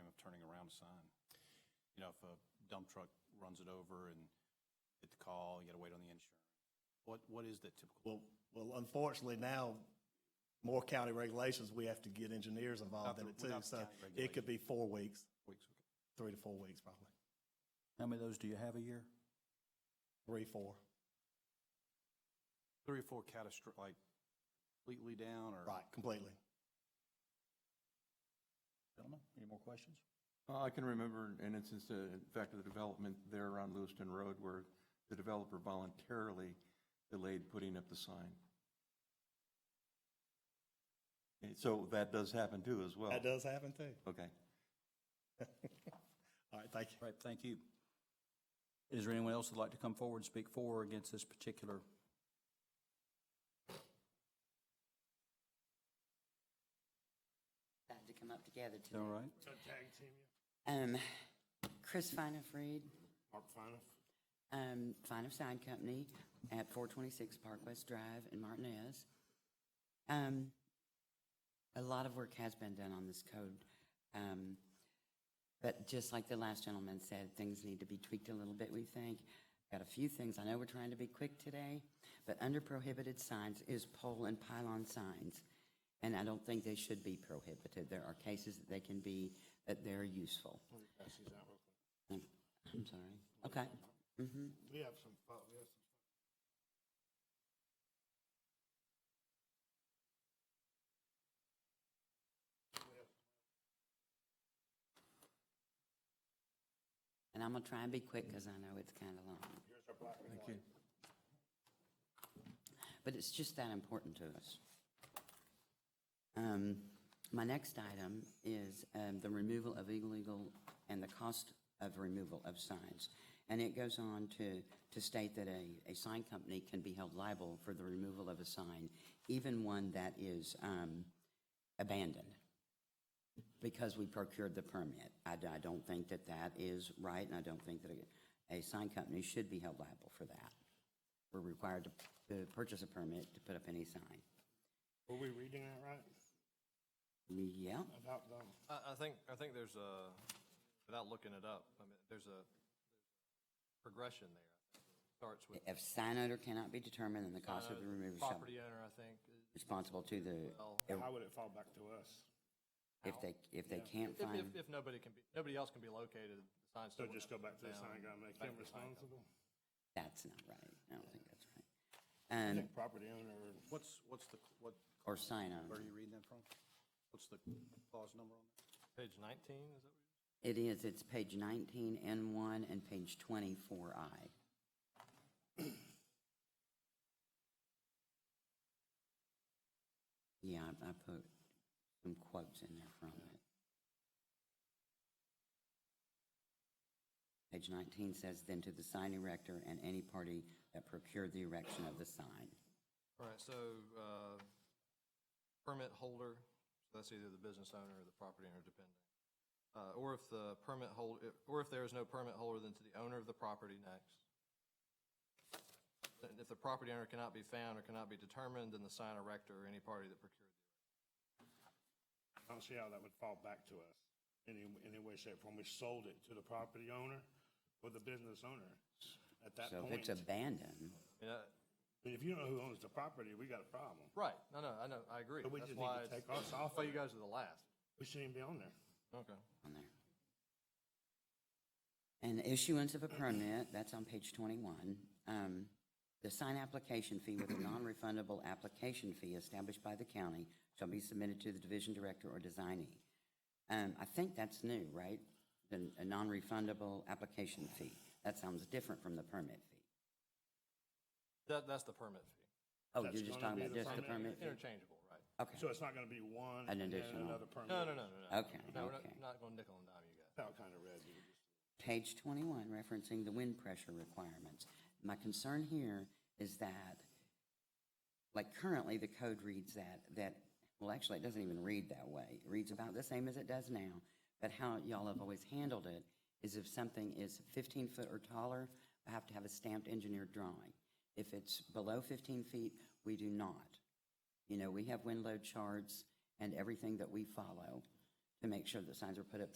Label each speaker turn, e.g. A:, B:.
A: pound sign. You know, if a dump truck runs it over and get the call, you gotta wait on the insurance. What, what is the
B: Well,
A: typical?
B: well, unfortunately now, more county regulations, we have to get engineers involved in it too.
A: Without the
B: So
A: county
B: it could be four weeks,
A: weeks? Okay.
B: three to four weeks probably,
C: How many of those do you have a year?
B: three, four.
A: Three or four catastro, like completely down or?
B: Right, completely.
C: Gentlemen, any more questions?
D: Uh, I can remember an instance, uh, in fact, of the development there around Lewiston Road where the developer voluntarily delayed putting up the sign. And so that does happen too as well?
B: That does happen too.
D: Okay.
B: All right, thank you.
C: All right, thank you. Is there anyone else that'd like to come forward and speak for or against this particular?
E: Had to come up together today.
C: All right,
E: Um, Chris Finoff Reed. Mark Finoff. Um, Finoff Sign Company at four twenty-six Park West Drive in Martinez. Um, a lot of work has been done on this code. Um, but just like the last gentleman said, things need to be tweaked a little bit, we think. Got a few things. I know we're trying to be quick today, but under prohibited signs is pole and pylon signs. And I don't think they should be prohibited. There are cases that they can be, that they're useful. I'm I'm sorry. Okay.
F: We have some, fo- we have some.
E: And I'm going to try and be quick because I know it's kind of long.
D: Thank you.
E: but it's just that important to us. Um, My next item is um, the removal of illegal and the cost of removal of signs. And it goes on to, to state that a, a sign company can be held liable for the removal of a sign, even one that is um, abandoned, because we procured the permit. I, I don't think that that is right, and I don't think that a, a sign company should be held liable for that. We're required to, to purchase a permit to put up any sign.
F: Were we reading that right?
E: Yeah,
F: About um, the,
G: I, I think, I think there's a, without looking it up, I mean, there's a progression there. Starts with uh,
E: if sign owner cannot be determined, then the cost of the removal shall be
G: property owner, I think.
E: responsible to
G: Well-
E: the,
F: how would it fall back to us?
E: if they, if they can't
G: If, if,
E: find,
G: if nobody can be, nobody else can be located, the sign
F: So
G: still.
F: just go back to the sign guy and make
G: Back
F: him
G: to the sign company.
F: responsible?
E: that's not right. I don't think that's right.
F: I
E: And,
F: think property owner,
A: What's, what's the, what,
E: or sign
A: where are
E: owner.
A: you reading that from? What's the clause number on that?
G: Page nineteen, is that what you?
E: It is, it's page 19, N1, and page 24I. Yeah, I I put some quotes in there from it. Page 19 says, "Then to the sign erector and any party that procured the erection of the sign."
G: All right, so, uh, permit holder, so that's either the business owner or the property owner, depending. Uh, or if the permit hold, or if there is no permit holder, then to the owner of the property next. And if the property owner cannot be found or cannot be determined, then the sign erector or any party that procured the.
F: I don't see how that would fall back to us in any, any way, shape, form. We sold it to the property owner or the business owner at that
E: So if it's
F: point. I
E: abandoned,
G: erector. Yeah,
F: mean, If you don't know who owns the property, we got a problem.
G: uh, Right, no, no, I know, I agree.
F: But we
G: That's
F: just need to
G: why it's-
F: take us off
G: That's why
F: of it.
G: you guys are the last.
F: We shouldn't even be on there.
G: Okay.
E: on there. And issuance of a permit, that's on page 21. Um, The sign application fee with a non-refundable application fee established by the county shall be submitted to the division director or designee. Um, I think that's new, right? The- A non-refundable application fee. That sounds different from the permit fee.
G: That, that's the permit fee.
E: Oh,
F: That's
E: you're just
F: gonna
E: talking
F: be
E: about
F: the
E: just the permit
F: permit.
E: fee?
G: Interchangeable, right?
E: Okay.
F: So it's not gonna be one
E: An
F: and then
E: additional.
F: another permit.
G: No, no, no, no, no.
E: Okay,
G: No, we're not-
E: okay.
G: not going nickel and dime you guys.
F: That's how it kinda read. You just-
E: Page 21, referencing the wind pressure requirements. My concern here is that, like currently, the code reads that, that, well, actually, it doesn't even read that way. It reads about the same as it does now, but how y'all have always handled it is if something is 15 foot or taller, I have to have a stamped engineered drawing. If it's below 15 feet, we do not. You know, we have wind load charts and everything that we follow to make sure that signs are put up